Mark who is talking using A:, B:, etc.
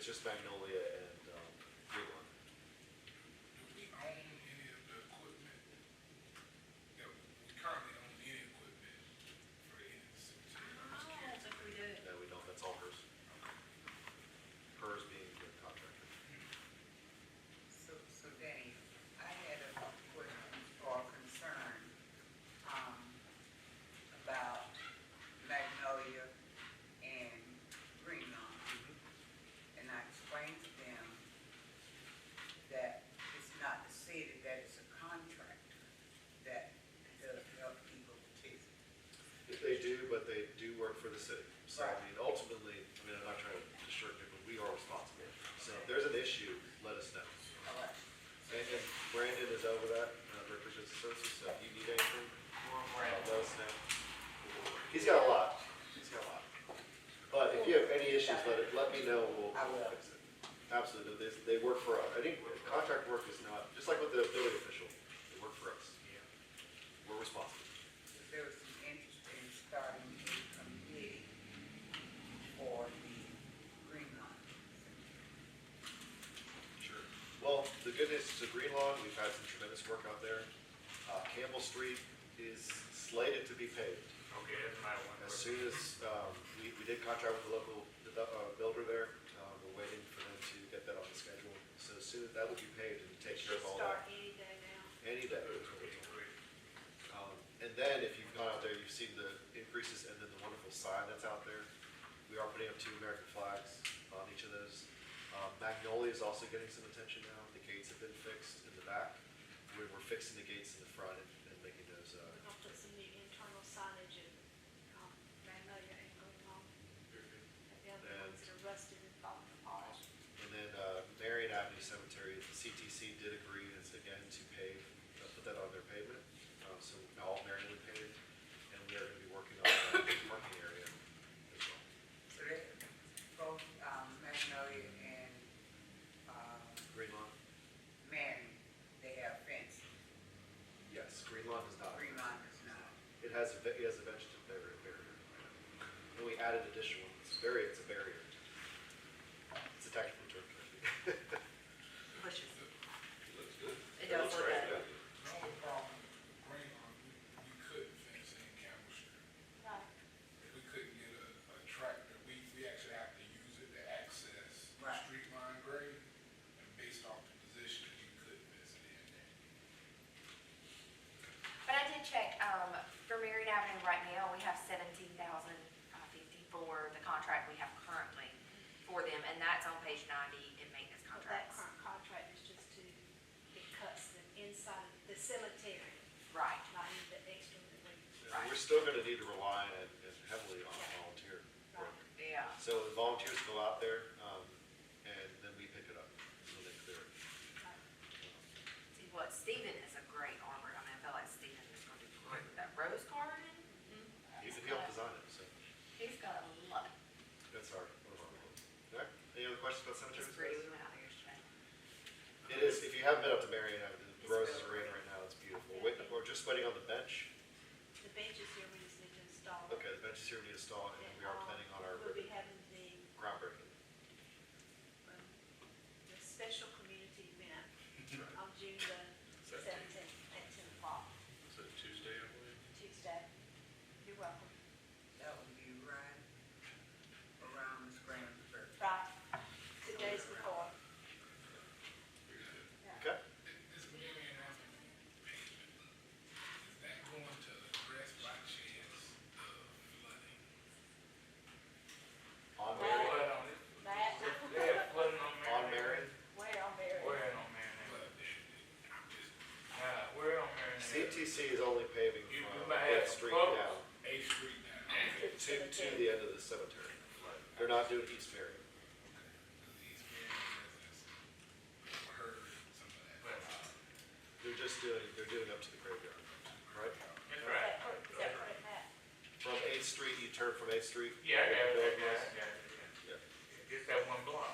A: Magnolia and, um, Woodlawn.
B: Do we own any of the equipment? Yeah, we currently own any equipment for any of
C: I
B: the cemetery? I'm just
C: don't
B: curious.
C: think we do.
A: No, we don't, that's all hers. Hers being the contractor.
D: So, so Danny, I had a question or a concern, um, about Magnolia and Green Lawn. And I explained to them that it's not the city, that it's a contractor that does help people to
A: They do, but they do work for the city. So, I
D: Right.
A: mean, ultimately, I mean, I'm not trying to disturb you, but we are responsible. So if there's an issue, let us know.
D: collect.
A: And, and Brandon is over that, uh, represents the services, so if you need anything, uh, let us know. He's got a lot, he's got a lot. But if you have any issues, let it, let me know, we'll,
D: I will.
A: we'll fix it. Absolutely, they, they work for us. I think contract work is not, just like with the building official, they work for us. We're responsible.
D: there was some interest in starting a committee for the Green Line.
A: Sure. Well, the good news is Green Lawn, we've had some tremendous work out there. Uh, Campbell Street is slated to be paved.
E: Okay, that's my one.
A: As soon as, um, we, we did contract with the local de- uh, builder there, uh, we're waiting for them to get that on the schedule. So as soon as that will be paved and take care
C: Should
A: of all
C: start
A: that,
C: any day now.
A: any day. Um, And then if you've gone out there, you've seen the increases and then the wonderful sign that's out there. We are putting up two American flags on each of those. Um, Magnolia is also getting some attention now. The gates have been fixed in the back. We're, we're fixing the gates in the front and, and making those, uh,
C: We're gonna put some new internal signage in, um, Magnolia and going on. And the other ones that are rusted and falling apart.
A: And then uh, Marion Avenue Cemetery, the CTC did agree, it's again to pave, uh, put that on their pavement. Um, So now all Marion would pave, and we are going to be working on the parking area as well.
D: So that, both, um, Magnolia and, um,
A: Green Lawn?
D: Marion, they have fence,
A: Yes, Green Lawn does not.
D: Green Line is not.
A: It has, a ve- it has a vegetative barrier. barrier. And we added additional ones, barrier, it's a barrier. It's a technical term.
F: pushes.
B: It looks good.
F: It does look
A: right,
F: good.
A: yeah.
B: The only problem with Green Lawn, we, we couldn't fence in Campbell Street.
C: Right.
B: We couldn't get a, a tractor. We, we actually have to use it to access
D: Right.
B: street line grade. And based off the position, we couldn't fence it in there.
G: But I did check, um, for Marion Avenue right now, we have seventeen thousand fifty-four, the contract we have currently for them, and that's on page ninety in maintenance
C: But that
G: contracts.
C: current contract is just to, it cuts the inside, of the cemetery,
G: Right,
C: not in the extra, like,
A: And We're still going to need to rely and heavily on volunteer work.
G: yeah.
A: So the volunteers go out there, um, and then we pick it up, so they clear it.
C: uh,
G: See, what, Stephen is a great armor, I mean, I feel like Stephen is gonna do great with that rose garden.
A: He's, he helped design it, so
G: He's got a lot,
A: that's our, one of our goals. All right, any other questions about
G: it's
A: cemeteries?
G: pretty, we went out there yesterday.
A: It is, if you haven't been up to Marion Avenue, the roses are in right now, it's beautiful. Wait, We're just waiting on the bench.
C: the benches here, we just need to install. um,
A: Okay, uh, the bench is here to be installed, and we are planning on our
C: We'll be having the,
A: groundbreaking.
C: um, the special community event on June the seventeenth at ten o'clock,
E: So Tuesday, I believe?
C: Tuesday. You're welcome.
D: That would be right around Scranton.
C: Right, two days before.
A: Okay?
B: This million after pavement, is that going to address by chance the flooding?
A: On
E: They had
A: Marion,
E: flood on it.
C: That,
E: They had flooding on
A: on
E: Marion.
A: Marion,
C: where on Mary?
E: Where on Marion?
B: But I'm just,
E: Nah, where on Marion?
A: CTC is only paving
E: You- you
A: from
E: might have
A: Eighth
E: some
A: Street down
E: problems.
B: A Street now.
A: to,
C: To the
A: to
C: cemetery.
A: the end of the cemetery. They're not doing East Marion.
B: These million residents heard some of that.
E: But,
A: They're just doing, they're doing up to the graveyard, right?
E: That's
C: Is
E: right.
C: that correct? Is that correct, Matt?
A: From Eighth Street, you turn from Eighth Street.
E: Yeah, I got it, I got it, I
A: Yeah.
E: got it. Just that one block.